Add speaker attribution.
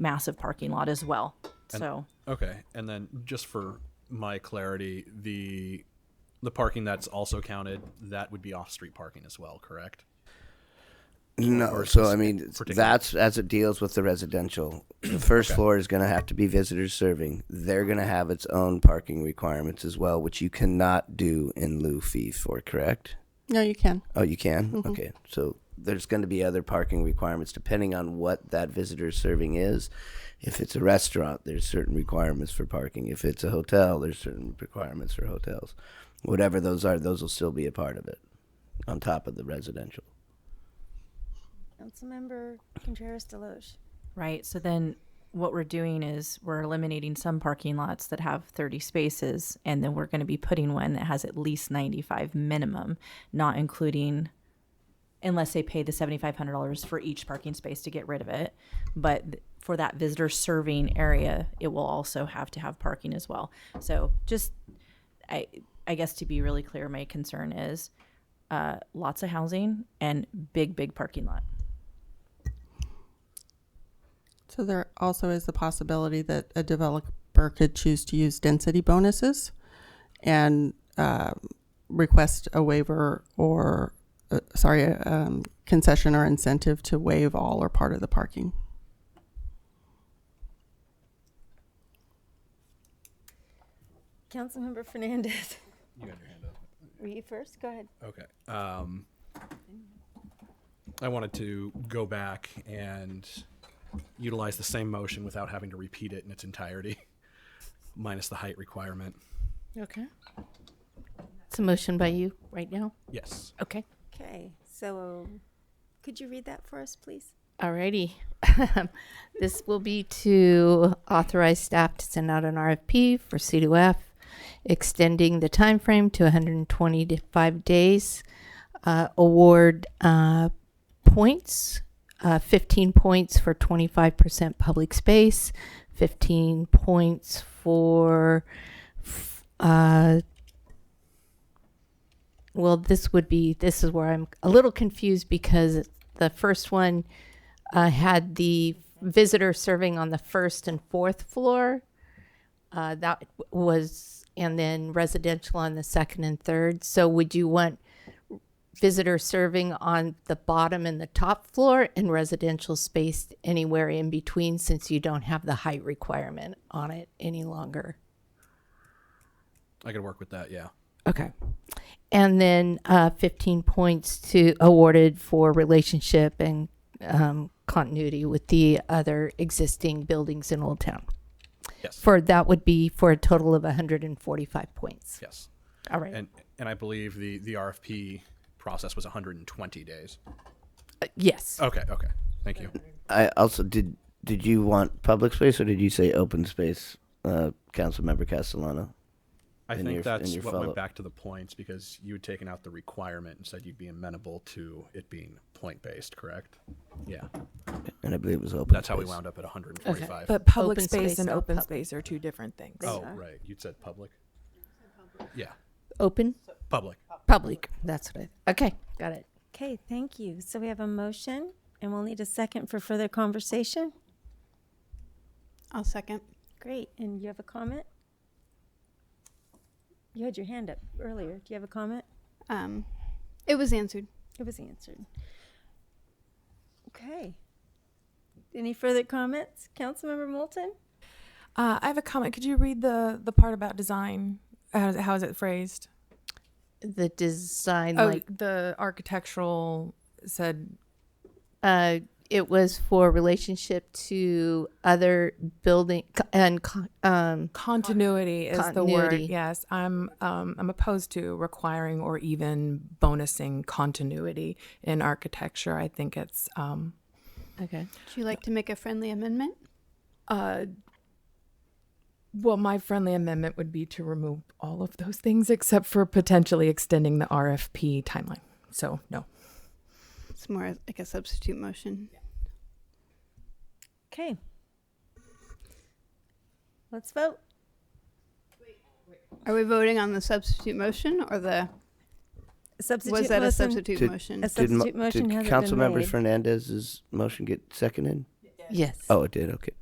Speaker 1: massive parking lot as well. so
Speaker 2: Okay, and then just for my clarity, the the parking that's also counted that would be off street parking as well, correct?
Speaker 3: No, so I mean that's as it deals with the residential. The first floor is going to have to be visitors serving. They're going to have its own parking requirements as well, which you cannot do in lieu fee for, correct?
Speaker 4: No, you can.
Speaker 3: Oh, you can. Okay, so there's going to be other parking requirements depending on what that visitor serving is. If it's a restaurant, there's certain requirements for parking. If it's a hotel, there's certain requirements for hotels. Whatever those are, those will still be a part of it, on top of the residential.
Speaker 5: Councilmember Contreras Deloche.
Speaker 1: Right. So then what we're doing is we're eliminating some parking lots that have 30 spaces, and then we're going to be putting one that has at least 95 minimum, not including unless they pay the $7500 for each parking space to get rid of it but th- for that visitor serving area it will also have to have parking as well so just i i guess to be really clear my concern is uh, lots of housing and big big parking lot
Speaker 4: So there also is the possibility that a developer could choose to use density bonuses and uh, request a waiver or, uh, sorry, a, um, concession or incentive to waive all or part of the parking.
Speaker 5: Councilmember Fernandez. You had your hand up. Were you first? Go ahead.
Speaker 2: Okay. Um, I wanted to go back and utilize the same motion without having to repeat it in its entirety, minus the height requirement.
Speaker 6: Okay. It's a motion by you right now.
Speaker 2: Yes.
Speaker 6: Okay.
Speaker 5: Okay, so um, could you read that for us, please?
Speaker 6: Alrighty. this will be to authorize staff to send out an RFP for C2F, extending the time frame to 125 days. Uh, award uh, points, uh, 15 points for 25% public space, 15 points for. f- Uh, well, this would be. This is where I'm a little confused because the first one uh, had the visitor serving on the first and fourth floor. Uh, that w- was, and then residential on the second and third. So, would you want visitor serving on the bottom and the top floor and residential spaced anywhere in between since you don't have the height requirement on it any longer?
Speaker 2: I could work with that, yeah.
Speaker 6: Okay. And then uh, 15 points to awarded for relationship and um, continuity with the other existing buildings in Old Town.
Speaker 2: Yes.
Speaker 6: For that would be for a total of 145 points.
Speaker 2: Yes.
Speaker 6: All right.
Speaker 2: And and I believe the the RFP process was 120 days.
Speaker 6: Uh, yes.
Speaker 2: Okay, okay. Thank you.
Speaker 3: I also did. Did you want public space or did you say open space, uh, Councilmember Castellano?
Speaker 2: I
Speaker 3: in
Speaker 2: think
Speaker 3: your-
Speaker 2: that's
Speaker 3: in your
Speaker 2: what
Speaker 3: follow-
Speaker 2: went back to the points because you had taken out the requirement and said you'd be amenable to it being point based, correct? Yeah,
Speaker 3: And I believe it was open.
Speaker 2: that's how we
Speaker 3: space.
Speaker 2: wound up at 145.
Speaker 7: But public
Speaker 6: Open
Speaker 7: space,
Speaker 6: space,
Speaker 7: and
Speaker 6: not
Speaker 7: open
Speaker 6: pub-
Speaker 7: space are two different things.
Speaker 2: oh, right. You said public. Yeah,
Speaker 6: Open?
Speaker 2: public.
Speaker 6: Public. That's what I. Okay. Got it.
Speaker 5: Okay, thank you. So we have a motion, and we'll need a second for further conversation.
Speaker 8: I'll second.
Speaker 5: Great, and you have a comment? You had your hand up earlier. Do you have a comment?
Speaker 8: Um, it was answered.
Speaker 5: It was answered. Okay. Any further comments? Councilmember Moulton?
Speaker 7: Uh, I have a comment. Could you read the the part about design? How is it, how is it phrased?
Speaker 6: The design,
Speaker 7: Oh,
Speaker 6: like,
Speaker 7: the architectural said.
Speaker 6: uh, it was for relationship to other building co- and, co- um,
Speaker 7: Continuity is the word.
Speaker 6: Continuity.
Speaker 7: Yes, I'm um, I'm opposed to requiring or even bonusing continuity in architecture. I think it's um,
Speaker 6: okay.
Speaker 8: Would you like to make a friendly amendment?
Speaker 7: uh, well, my friendly amendment would be to remove all of those things except for potentially extending the RFP timeline. So no.
Speaker 8: It's more like a substitute motion.
Speaker 5: Okay. Let's vote.
Speaker 8: Are we voting on the substitute motion or the
Speaker 5: Substitute
Speaker 8: was that a
Speaker 5: motion-
Speaker 8: substitute
Speaker 3: Did-
Speaker 8: motion?
Speaker 5: A
Speaker 3: Did, mo-
Speaker 5: substitute motion
Speaker 3: did
Speaker 5: hasn't been
Speaker 3: Councilmember
Speaker 5: made.
Speaker 3: Fernandez's motion get seconded?
Speaker 6: Yes.
Speaker 3: Oh, it did. Okay.